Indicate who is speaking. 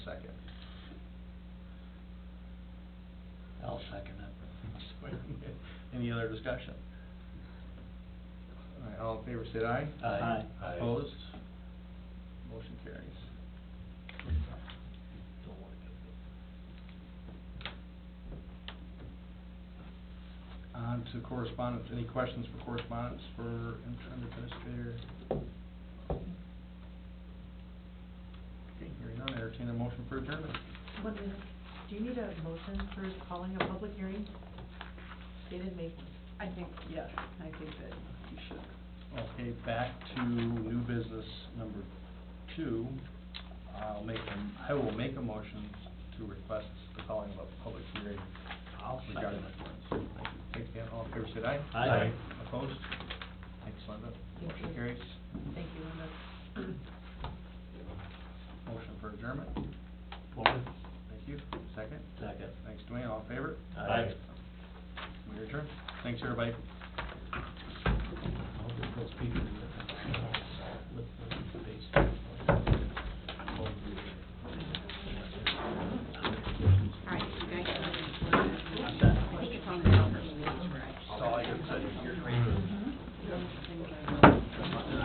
Speaker 1: I'll second it. Any other discussion?
Speaker 2: All right, all in favor, say aye.
Speaker 1: Aye. Aye.
Speaker 2: Opposed? Motion carries. On to correspondence, any questions for correspondence for interim administrator? Okay, hearing none, entertain a motion for adjournment.
Speaker 3: One minute. Do you need a motion for calling a public hearing? They didn't make one.
Speaker 4: I think, yes, I think that you should.
Speaker 2: Okay, back to new business number two. I'll make, a- I will make a motion to request the calling of a public hearing
Speaker 1: I'll second
Speaker 2: regarding
Speaker 1: it.
Speaker 2: Thank you. Thanks, Dan. All in favor, say aye.
Speaker 1: Aye. Aye.
Speaker 2: Opposed? Thanks, Linda.
Speaker 3: Thank
Speaker 2: Motion
Speaker 3: you.
Speaker 2: carries.
Speaker 3: Thank you, Linda.
Speaker 2: Motion for adjournment.
Speaker 1: Four,
Speaker 2: Thank you. Second.
Speaker 1: second.
Speaker 2: Thanks, Dwayne. All in favor?
Speaker 1: Aye.
Speaker 2: We adjourn. Thanks, everybody.
Speaker 1: I'll get those people to look at that.